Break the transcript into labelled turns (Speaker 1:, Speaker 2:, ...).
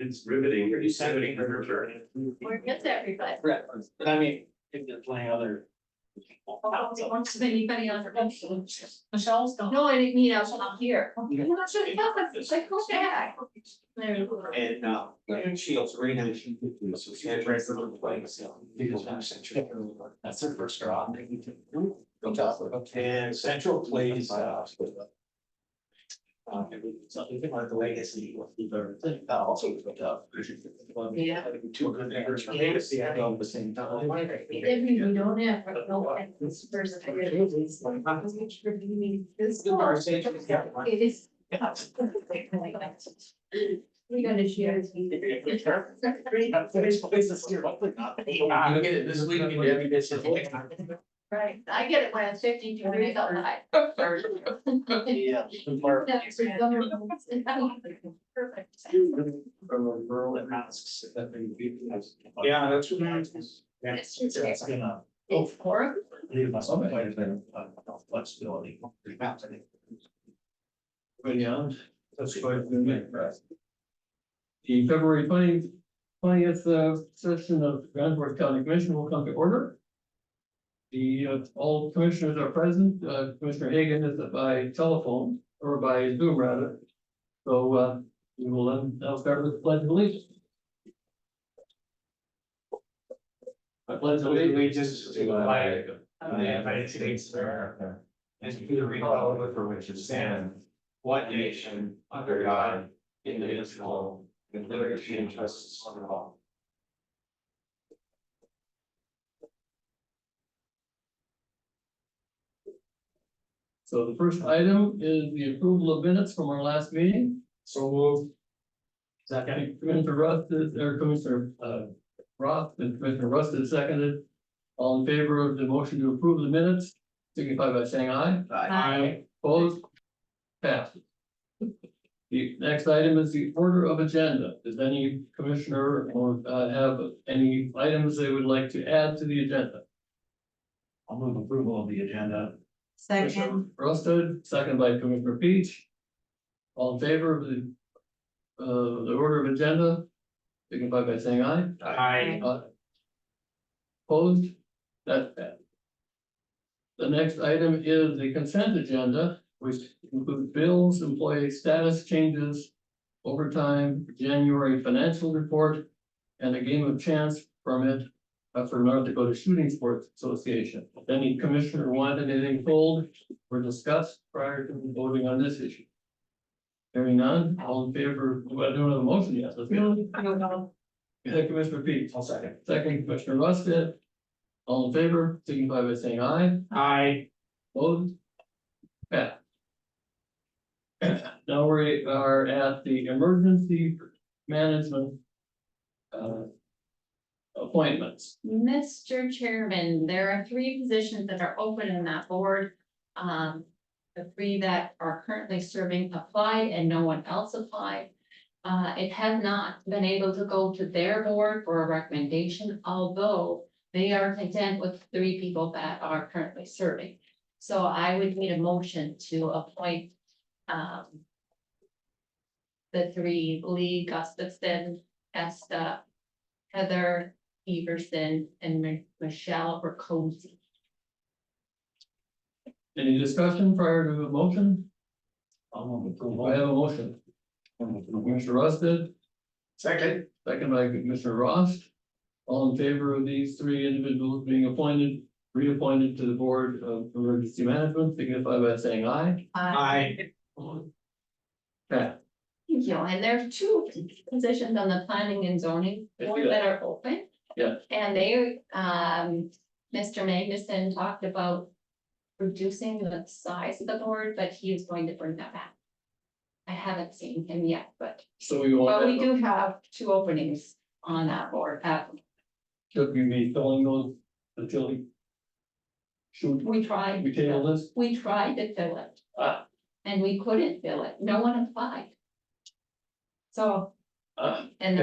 Speaker 1: It's riveting.
Speaker 2: Pretty riveting.
Speaker 3: Where gets everybody?
Speaker 2: Correct, but I mean, if there's plenty other.
Speaker 3: Wants anybody on her.
Speaker 4: Michelle's gone.
Speaker 3: No, I didn't mean I was not here.
Speaker 2: Yeah.
Speaker 3: Well, that's what it felt like. It's like, go back. There you go.
Speaker 2: And uh, and she also ran out, she could do, so she had right from the place, so. That's her first draw. And Central plays uh. Uh, something like the legacy of the very thing, that also was picked up.
Speaker 4: Yeah.
Speaker 2: Two good neighbors from legacy, I know, at the same time.
Speaker 3: Every, we don't have, like, no one, this person.
Speaker 2: It's the conversation, yeah.
Speaker 3: It is,
Speaker 2: Yeah.
Speaker 3: we're gonna share this. with you.
Speaker 2: I get it, this is leading me to every business.
Speaker 3: Right, I get it when it's fifty degrees outside.
Speaker 2: Yeah.
Speaker 3: That's pretty dumb. Perfect.
Speaker 2: From a rural and masks. Yeah, that's.
Speaker 3: That's true.
Speaker 2: That's gonna
Speaker 3: It's horrible.
Speaker 2: leave us some quite a bit of uh, flexibility. Perhaps, I think. But yeah,
Speaker 1: That's quite the minute, right? The February twentieth, twentieth uh, session of Grand Forks County Commission will come to order. The, uh, all commissioners are present, uh, Commissioner Hagan is by telephone or by Zoom rather. So, uh, we will then, now start with the pledge of allegiance. I pledge
Speaker 2: just to And to the republic for which it stands, one nation, under God, indivisible, with liberty and justice for all.
Speaker 1: So the first item is the approval of minutes from our last meeting. So move. Second, Commissioner Rust is, or Commissioner, uh, Roth and Commissioner Rust is seconded. All in favor of the motion to approve the minutes, signify by saying aye. Opposed? Passed. The next item is the order of agenda. Does any commissioner or, uh, have any items they would like to add to the agenda?
Speaker 2: I'll move approval of the agenda.
Speaker 4: Second.
Speaker 1: Roasted, second by Commissioner Peach. All in favor of the, uh, the order of agenda, signify by saying aye.
Speaker 2: Aye.
Speaker 1: Aye. Opposed, that's passed. The next item is the consent agenda, which includes bills, employee status changes, overtime, January financial report, and a game of chance permit uh, for North Dakota Shooting Sports Association. If any commissioner wanted anything pulled or discussed prior to voting on this issue. Hearing none, all in favor, well, I don't have a motion yet, let's go. Yeah, Commissioner Pete.
Speaker 2: I'll second.
Speaker 1: Second, Commissioner Rusted. All in favor, signify by saying aye.
Speaker 2: Aye.
Speaker 1: Opposed? Pat. Now we are at the emergency management. uh, Appointments.
Speaker 3: Mr. Chairman, there are three positions that are open in that board. Um, the three that are currently serving applied and no one else applied. Uh, it has not been able to go to their board for a recommendation, although they are content with three people that are currently serving. So I would need a motion to appoint, um, the three, Lee Gustafson, Esta, Heather, Everson and Mi- Michelle Rakosi.
Speaker 1: Any discussion prior to the motion?
Speaker 2: I'll move
Speaker 1: I have a motion.
Speaker 2: approval.
Speaker 1: Commissioner Rusted,
Speaker 2: Second.
Speaker 1: second by Commissioner Ross. All in favor of these three individuals being appointed, reappointed to the Board of Emergency Management, signify by saying aye.
Speaker 3: Uh,
Speaker 2: Aye.
Speaker 1: Yeah,
Speaker 3: Thank you, and there are two positions on the planning and zoning
Speaker 1: I see
Speaker 3: board that are open.
Speaker 1: Yeah.
Speaker 3: And they, um, Mr. Magnuson talked about reducing the size of the board, but he is going to bring that back. I haven't seen him yet, but,
Speaker 1: so we
Speaker 3: but we
Speaker 1: want,
Speaker 3: do have two openings on that board, uh,
Speaker 1: should we be filling those until we should
Speaker 3: we tried.
Speaker 1: we table this?
Speaker 3: We tried to fill it.
Speaker 1: Ah.
Speaker 3: And we couldn't fill it, no one applied. So,
Speaker 1: Uh,
Speaker 3: and the